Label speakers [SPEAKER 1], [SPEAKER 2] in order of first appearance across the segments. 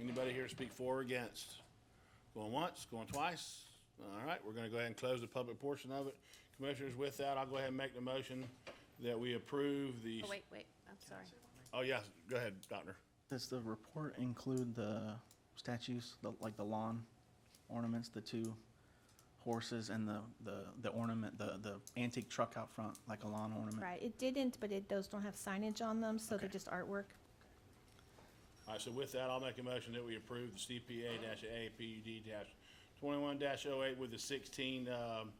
[SPEAKER 1] Anybody here speak for or against? Going once, going twice? All right, we're gonna go ahead and close the public portion of it. Commissioners, with that, I'll go ahead and make the motion that we approve the.
[SPEAKER 2] Oh, wait, wait, I'm sorry.
[SPEAKER 1] Oh, yes, go ahead, Doctor.
[SPEAKER 3] Does the report include the statues, the- like the lawn ornaments, the two horses and the, the, the ornament, the, the antique truck out front, like a lawn ornament?
[SPEAKER 4] Right, it didn't, but it, those don't have signage on them, so they're
[SPEAKER 3] Okay.
[SPEAKER 4] just artwork.
[SPEAKER 1] All right, so with that, I'll make a motion that we approve the CPA dash A P U D dash twenty-one dash oh eight with the sixteen, um,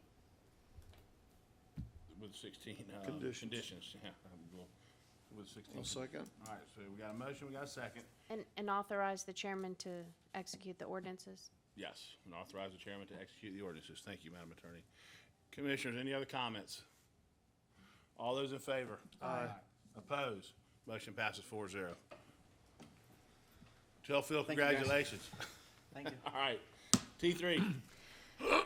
[SPEAKER 1] with sixteen, uh,
[SPEAKER 5] Conditions.
[SPEAKER 1] Conditions, yeah, I'm cool. with 16
[SPEAKER 5] I'll second.
[SPEAKER 1] All right, so we got a motion, we got a second.
[SPEAKER 2] And, and authorize the chairman to execute the ordinances?
[SPEAKER 1] Yes, and authorize the chairman to execute the ordinances. Thank you, Madam Attorney. Commissioners, any other comments? All those in favor? Aye. Opposed? Motion passes four zero. Tell Phil
[SPEAKER 3] you, guys.
[SPEAKER 1] congratulations.
[SPEAKER 3] Thank you.
[SPEAKER 1] All right, T three.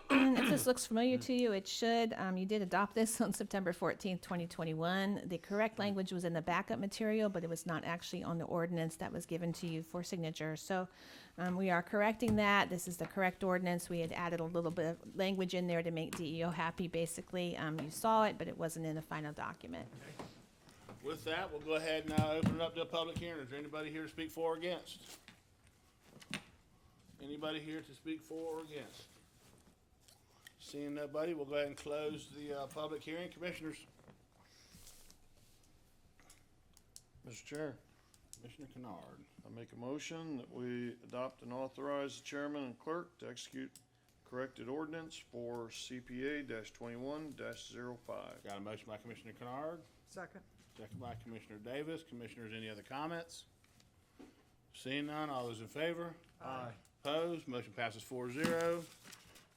[SPEAKER 4] And if this looks familiar to you, it should. Um, you did adopt this on September fourteenth, twenty twenty-one. The correct language was in the backup material, but it was not actually on the ordinance that was given to you for signature. So, um, we are correcting that. This is the correct ordinance. We had added a little bit of language in there to make DEO happy, basically. Um, you saw it, but it wasn't in the final document.
[SPEAKER 1] With that, we'll go ahead and uh, open it up to a public hearing. Is there anybody here to speak for or against? Anybody here to speak for or against? Seeing nobody, we'll go ahead and close the uh, public hearing. Commissioners,
[SPEAKER 5] Mr. Chair,
[SPEAKER 1] Commissioner Kennard.
[SPEAKER 5] I make a motion that we adopt and authorize the chairman and clerk to execute corrected ordinance for CPA twenty-one 5
[SPEAKER 1] Got a motion by Commissioner Kennard,
[SPEAKER 6] Second.
[SPEAKER 1] second by Commissioner Davis. Commissioners, any other comments? Seeing none, all those in favor? Aye. Opposed, motion passes four zero.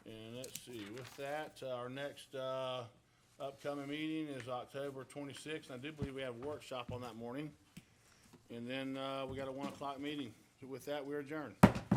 [SPEAKER 1] And let's see, with that, uh, our next, uh, upcoming meeting is October twenty-sixth. I do believe we have a workshop on that morning. And then, uh, we got a one o'clock meeting. So with that, we're adjourned.